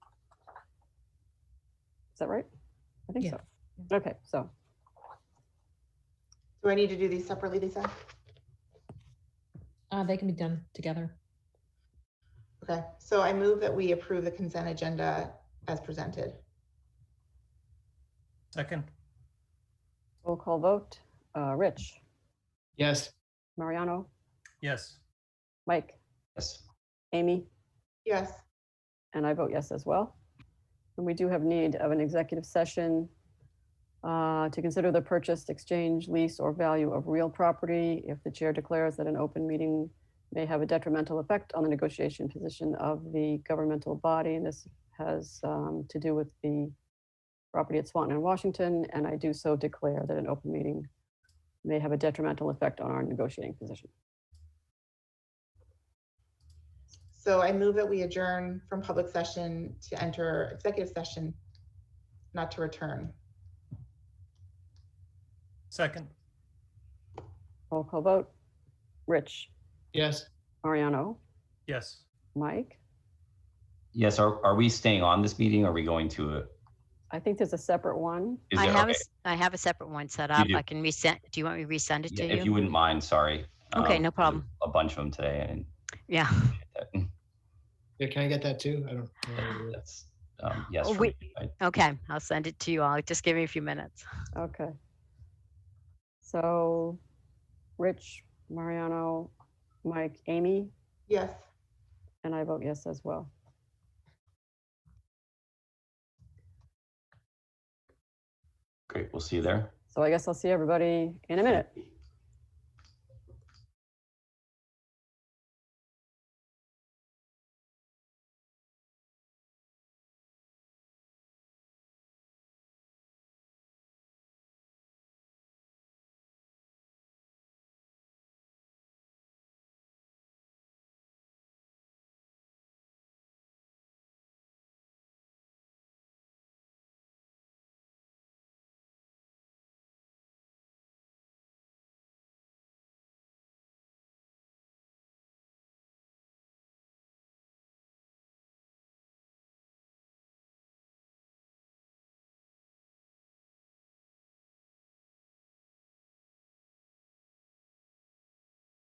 that right? I think Yeah. so. Okay, so Do I need to do these separately, Lisa? Uh, they can be done together. Okay, so I move that we approve the consent agenda as presented. Second? roll call vote. Uh, Rich, Yes. Mariano, Yes. Mike, Yes. Amy, Yes, and I vote yes as well. And we do have need of an executive session uh, to consider the purchase, exchange, lease, or value of real property if the chair declares that an open meeting may have a detrimental effect on the negotiation position of the governmental body. And this has um, to do with the property at Swanton and Washington, and I do so declare that an open meeting may have a detrimental effect on our negotiating position. so I move that we adjourn from public session to enter executive session, not to return. Second? Roll call vote. Rich, Yes. Mariano, Yes. Mike? Yes, are, are we staying on this meeting? Are we going to? a- I think there's a separate one. is I it- have, okay, a s- I have a separate one set up. do. I can resend, do you want me to resend it yeah, to If you you? wouldn't mind, sorry. Okay, Um, no problem. A bunch of them today and Yeah. Yeah, can I get that too? I don't. I don't know. that's, um, yes. Oh, for wait. me. I- Okay, I'll send it to you all. Just give me a few minutes. Okay. So, Rich, Mariano, Mike, Amy, Yes, and I vote yes as well. Great, we'll see you there. So I guess I'll see everybody in a minute.